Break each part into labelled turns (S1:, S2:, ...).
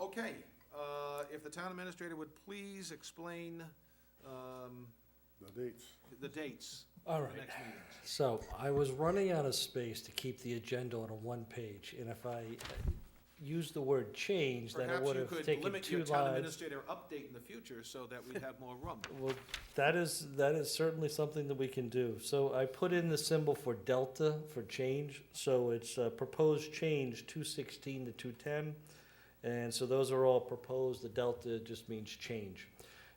S1: Okay, uh, if the town administrator would please explain um,
S2: The dates.
S1: the dates
S3: All
S1: for the
S3: right,
S1: next meetings.
S3: so I was running out of space to keep the agenda on a one page, and if I uh, used the word change, then it
S1: Perhaps
S3: would
S1: you
S3: have
S1: could
S3: taken
S1: limit
S3: two
S1: your town
S3: lines.
S1: administrator update in the future so that we have more room.
S3: Well, that is, that is certainly something that we can do. So I put in the symbol for delta for change, so it's uh, proposed change two sixteen to two ten. And so those are all proposed, the delta just means change.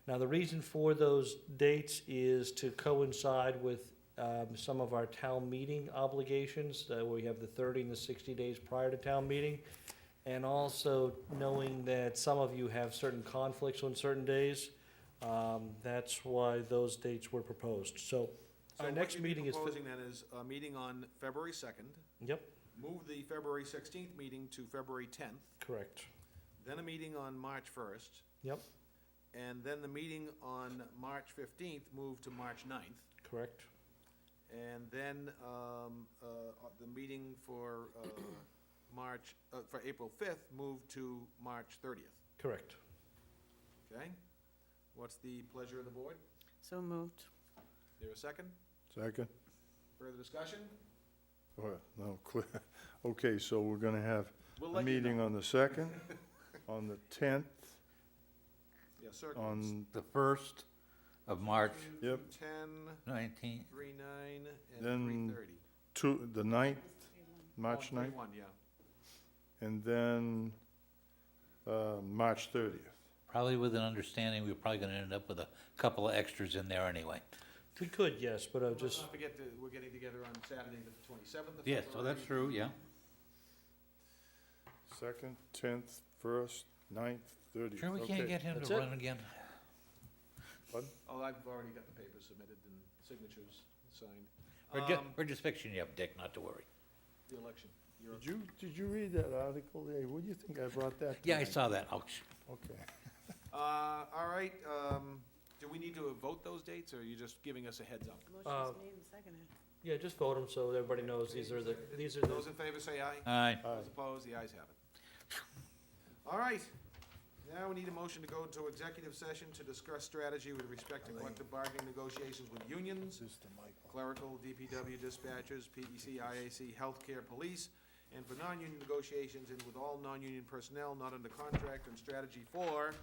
S3: Now, the reason for those dates is to coincide with um, some of our town meeting obligations, uh, where we have the 30 and the 60 days prior to town meeting, and also knowing that some of you have certain conflicts on certain days, um, that's why those dates were proposed. So
S1: So
S3: our
S1: what
S3: next
S1: you'd be
S3: meeting is, fi-
S1: Proposing then is a meeting on February second,
S3: yep,
S1: move the February sixteenth meeting to February tenth,
S3: correct,
S1: then a meeting on March first,
S3: yep,
S1: and then the meeting on March fifteenth moved to March 9th.
S3: correct,
S1: And then, um, uh, uh, the meeting for, uh, March, uh, for April fifth moved to March thirtieth,
S3: correct.
S1: okay? What's the pleasure of the board?
S4: So moved.
S1: There a second?
S2: Second?
S1: Further discussion?
S2: Go ahead. No, clear. Okay, so we're gonna have
S1: We'll
S2: a
S1: let you know.
S2: meeting on the second, on the tenth,
S1: Yeah, circle.
S2: on,
S5: the first of March
S1: Two,
S2: yep,
S1: Ten,
S5: nineteenth.
S1: three nine, and
S2: Then
S1: three thirty. Oh,
S2: two, the ninth, March ninth,
S1: One, yeah.
S2: and then, uh, March thirtieth.
S5: Probably with an understanding, we're probably gonna end up with a couple of extras in there anyway.
S3: We could, yes, but I
S1: Let's
S3: just,
S1: not forget that we're getting together on Saturday, the twenty-seventh of
S5: Yes,
S1: February.
S5: so that's true, yeah.
S2: Second, tenth, first, ninth, thirtieth.
S5: Sure we can't get him
S3: That's
S5: to
S3: it.
S5: run again?
S1: Oh, I've already got the papers submitted and signatures signed.
S5: We're just,
S1: Um,
S5: we're just fixing you up, Dick, not to worry.
S1: The election. You're-
S2: Did you, did you read that article? Hey, what do you think I brought that?
S5: Yeah, I
S2: tonight?
S5: saw that, ouch.
S2: Okay.
S1: Uh, all right, um, do we need to vote those dates, or are you just giving us a heads up?
S3: Uh,
S4: Motion's made and seconded.
S3: yeah, just vote them so everybody knows these are the, these are the
S1: Those in favor say aye,
S5: Aye.
S1: those opposed, the ayes have it. All right, now we need a motion to go into executive session to discuss strategy with respect to collective bargaining negotiations with unions,
S2: This is the mic.
S1: clerical, DPW dispatchers, E PEC, IAC, healthcare, police, and for non-union negotiations and with all non-union personnel not under contract and strategy for,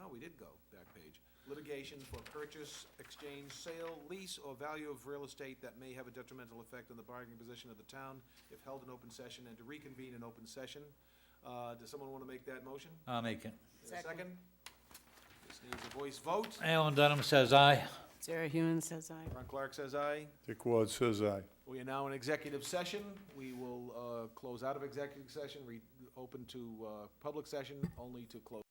S1: oh, we did go back page, litigation for purchase, exchange, sale, lease, or value of real estate that may have a detrimental effect on the bargaining position of the town if held in open session and to reconvene in open session. Uh, does someone want to make that motion?
S5: I'll make it.
S1: Is there a
S4: Second.
S1: Second? This needs a voice vote.
S5: Alan Dunham says aye.
S4: Sarah Hewen says aye.
S1: Ron Clark says aye.
S2: Dick Ward says aye.
S1: We are now in executive session. We will uh, close out of executive session, re- open to uh, public session, only to close